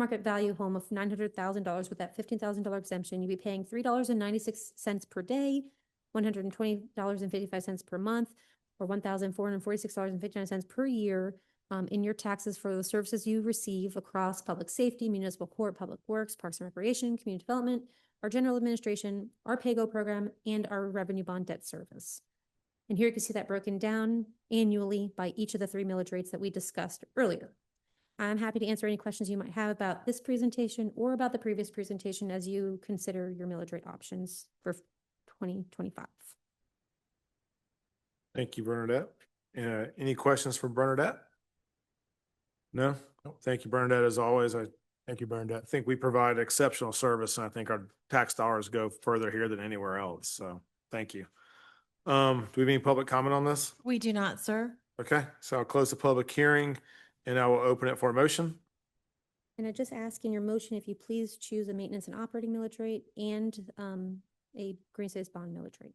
market value home of nine hundred thousand dollars with that fifteen thousand dollar exemption, you'd be paying three dollars and ninety-six cents per day, one hundred and twenty dollars and fifty-five cents per month, or one thousand four hundred and forty-six dollars and fifty-nine cents per year um, in your taxes for the services you receive across public safety, municipal court, public works, parks and recreation, community development, our general administration, our PAYGO program, and our revenue bond debt service. And here you can see that broken down annually by each of the three millage rates that we discussed earlier. I'm happy to answer any questions you might have about this presentation or about the previous presentation as you consider your millage rate options for twenty twenty-five. Thank you, Bernadette. Uh, any questions for Bernadette? No? Thank you, Bernadette, as always. I. Thank you, Bernadette. I think we provide exceptional service and I think our tax dollars go further here than anywhere else. So thank you. Um, do we have any public comment on this? We do not, sir. Okay, so I'll close the public hearing and I will open it for a motion. And I just ask in your motion if you please choose a maintenance and operating millage rate and um, a green space bond millage rate.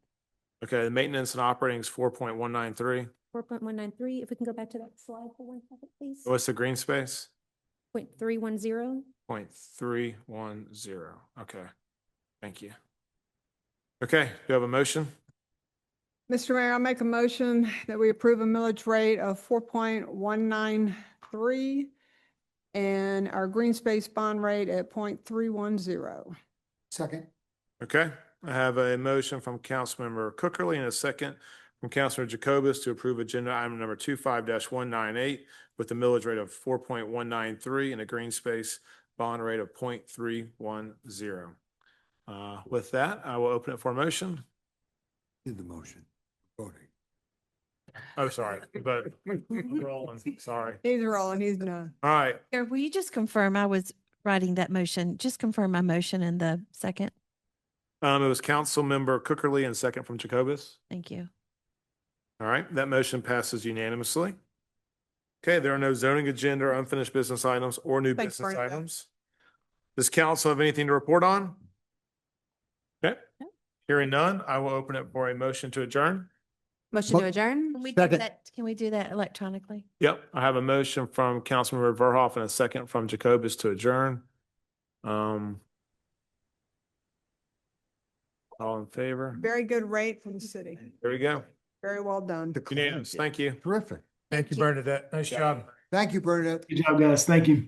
Okay, the maintenance and operating is four point one nine three. Four point one nine three, if we can go back to that slide for one second, please. What's the green space? Point three one zero. Point three one zero. Okay, thank you. Okay, do you have a motion? Mr. Mayor, I make a motion that we approve a millage rate of four point one nine three and our green space bond rate at point three one zero. Second, Okay, I have a motion from Councilmember Cookerly and a second from Councilor Jacobus to approve agenda item number two one nine eight with a millage rate of four point one nine three and a green space bond rate of point three one zero. Uh, with that, I will open it for a motion. did the motion, voting. Oh, sorry, but rolling, sorry. He's rolling, he's done. All right, Mayor, will you just confirm? I was writing that motion. Just confirm my motion in the second. um, it was Councilmember Cookerly and second from Jacobus. Thank you. All right, that motion passes unanimously. Okay, there are no zoning agenda, or unfinished business items, or new Thanks, business Bernadette. items. Does council have anything to report on? Okay, hearing none, I will open it for a motion to adjourn. Motion to Mo- adjourn? Can we do Second. that? Can we do that electronically? Yep, I have a motion from Councilmember Verhoff and a second from Jacobus to adjourn. Um. All in favor? Very good rate for the city. There we go. Very well done. The client Unanimous, did. thank you. Terrific. Thank you, Bernadette. Nice job. Thank you, Bernadette. Good job, guys. Thank you.